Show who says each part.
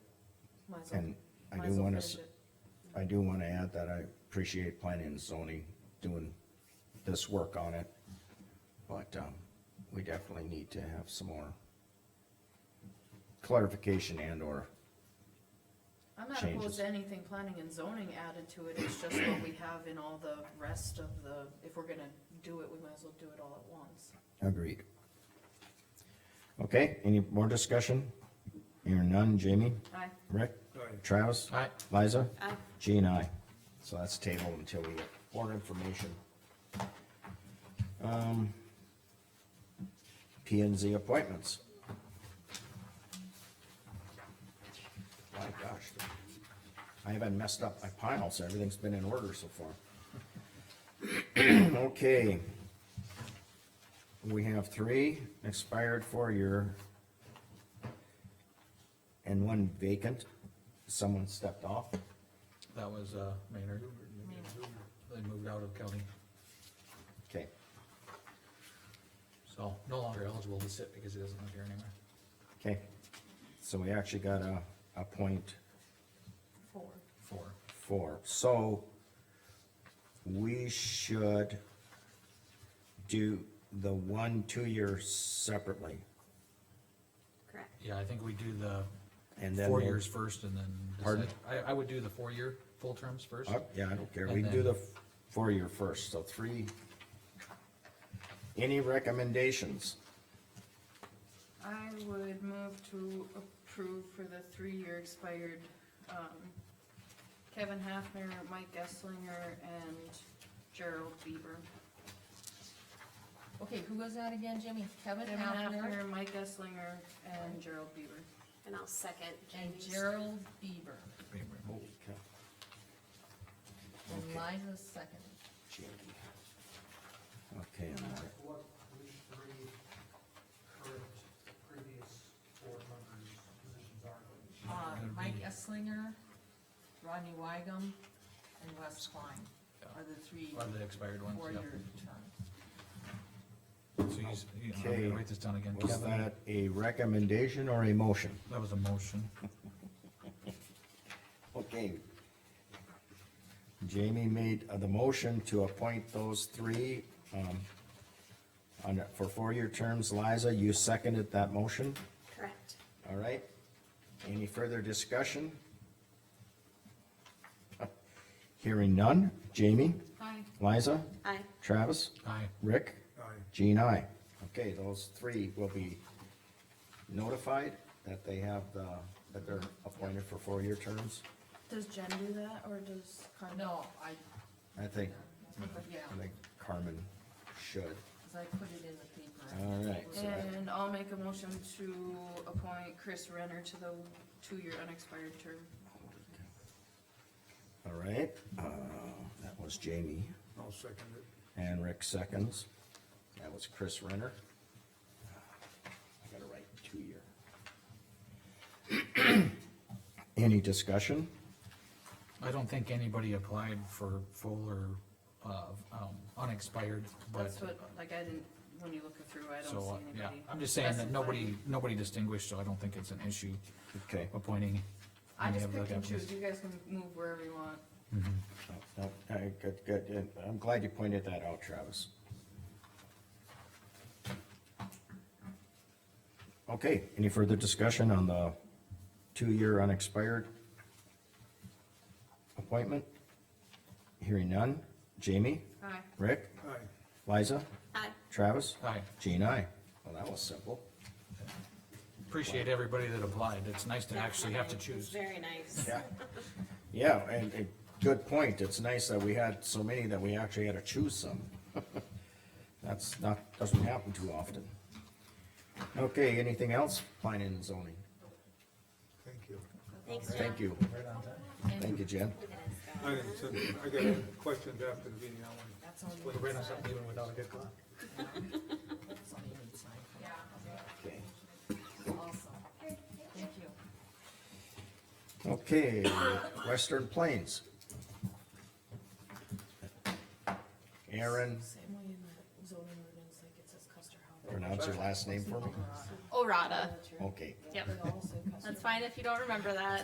Speaker 1: Might as well-
Speaker 2: And I
Speaker 1: might
Speaker 2: do
Speaker 1: as well
Speaker 2: wanna,
Speaker 1: finish
Speaker 2: s-
Speaker 1: it.
Speaker 2: I do wanna add that I appreciate planning and zoning doing this work on it. But, um, we definitely need to have some more clarification and or,
Speaker 1: I'm not
Speaker 2: changes.
Speaker 1: opposed to anything planning and zoning added to it, it's just what we have in all the rest of the, if we're gonna do it, we might as well do it all at once.
Speaker 2: agreed. Okay, any more discussion? Hearing none, Jamie?
Speaker 1: Aye.
Speaker 2: Rick?
Speaker 3: Aye.
Speaker 2: Travis?
Speaker 4: Aye.
Speaker 2: Liza?
Speaker 1: Aye.
Speaker 2: Jean, aye. So that's tabled until we get more information. Um, P and Z appointments. My gosh. I haven't messed up my pile, so everything's been in order so far. Okay. We have three expired four-year and one vacant. Someone stepped off.
Speaker 4: That was, uh, Maynard. They moved out of county,
Speaker 2: Okay.
Speaker 4: so no longer eligible to sit because he doesn't live here anymore.
Speaker 2: Okay, so we actually got a, a point
Speaker 1: Four.
Speaker 4: Four.
Speaker 2: four, so we should do the one, two-year separately,
Speaker 5: Correct.
Speaker 4: Yeah, I think we do the
Speaker 2: and then.
Speaker 4: four
Speaker 2: we'll-
Speaker 4: years first and then.
Speaker 2: Pardon?
Speaker 4: decide. I, I would do the four-year full terms first.
Speaker 2: Uh, Yeah, I don't care, we
Speaker 4: And
Speaker 2: do the
Speaker 4: then-
Speaker 2: f- four-year first, so three. Any recommendations?
Speaker 1: I would move to approve for the three-year expired, um, Kevin Hafner, Mike Esslinger, and Gerald Bieber.
Speaker 6: Okay, who was that again, Jimmy? Kevin
Speaker 1: Kevin
Speaker 6: Hafner
Speaker 1: Hafner, Mike Esslinger, and Gerald Bieber.
Speaker 5: And I'll second
Speaker 6: and
Speaker 5: Jamie's.
Speaker 6: Gerald Bieber,
Speaker 2: Holy cow,
Speaker 6: and Liza second.
Speaker 2: Jamie. Okay, and I-
Speaker 7: What which three current previous board members' positions are they?
Speaker 6: Uh, Mike Esslinger, Rodney Weigum, and Wes Klein are the three
Speaker 4: Are the expired ones, yeah.
Speaker 6: four-year terms.
Speaker 4: So you, s- you, I'm
Speaker 2: Okay.
Speaker 4: gonna write this down again.
Speaker 2: was
Speaker 4: Kevin.
Speaker 2: that a recommendation or a motion?
Speaker 4: That was a motion.
Speaker 2: Okay. Jamie made uh, the motion to appoint those three, um, on, a- for four-year terms. Liza, you seconded that motion,
Speaker 5: Correct.
Speaker 2: all right? Any further discussion? Hearing none. Jamie,
Speaker 1: Hi.
Speaker 2: Liza,
Speaker 5: Aye.
Speaker 2: Travis,
Speaker 4: Aye.
Speaker 2: Rick,
Speaker 3: Aye.
Speaker 2: Jean, I. Okay, those three will be notified that they have the, that they're appointed for four-year terms.
Speaker 1: Does Jen do that, or does Carmen?
Speaker 6: No, I,
Speaker 2: I think
Speaker 6: yeah,
Speaker 2: I think Carmen should.
Speaker 6: cause I put it in the paper.
Speaker 2: All right, so that-
Speaker 1: And I'll make a motion to appoint Chris Renner to the two-year unexpired term.
Speaker 2: all right, uh, that was Jamie,
Speaker 3: I'll second it.
Speaker 2: and Rick seconds. That was Chris Renner. Uh, I gotta write two-year. Any discussion?
Speaker 4: I don't think anybody applied for full or, uh, um, unexpired, but,
Speaker 1: That's what, like, I didn't, when you look it through, I don't
Speaker 4: so, uh,
Speaker 1: see
Speaker 4: yeah.
Speaker 1: anybody.
Speaker 4: I'm just saying that
Speaker 1: specified.
Speaker 4: nobody, nobody distinguished, so I don't think it's an issue
Speaker 2: Okay,
Speaker 4: appointing.
Speaker 1: I
Speaker 4: any
Speaker 1: just
Speaker 4: of the
Speaker 1: picked and
Speaker 4: deputies.
Speaker 1: choose, you guys can move wherever you want.
Speaker 2: no, no, I- good, good, and I'm glad you pointed that out, Travis. Okay, any further discussion on the two-year unexpired appointment? Hearing none. Jamie?
Speaker 1: Hi.
Speaker 2: Rick?
Speaker 3: Aye.
Speaker 2: Liza?
Speaker 5: Aye.
Speaker 2: Travis?
Speaker 4: Aye.
Speaker 2: Jean, I. Well, that was simple.
Speaker 4: Appreciate everybody that applied. It's nice to actually have to
Speaker 5: It's
Speaker 4: choose.
Speaker 5: Very nice.
Speaker 2: Yeah. Yeah, and, and good point. It's nice that we had so many that we actually had to choose some. That's not, doesn't happen too often. Okay, anything else? Planning and zoning.
Speaker 3: Thank you.
Speaker 5: Thanks, Jen.
Speaker 2: Thank you. Thank you, Jen.
Speaker 5: Look at us go.
Speaker 3: I didn't send, I got questions after the meeting, I
Speaker 6: That's on
Speaker 3: want.
Speaker 6: the
Speaker 3: Ran us up even without a good clock.
Speaker 6: that's on the inside.
Speaker 2: Okay.
Speaker 6: Awesome. Thank you.
Speaker 2: Okay, Western Plains. Aaron,
Speaker 1: Same way in the zoning ordinance, like it says Custer House.
Speaker 2: pronounce your last name for me?
Speaker 5: Orada.
Speaker 2: Okay.
Speaker 5: Yep. That's fine if you don't remember that.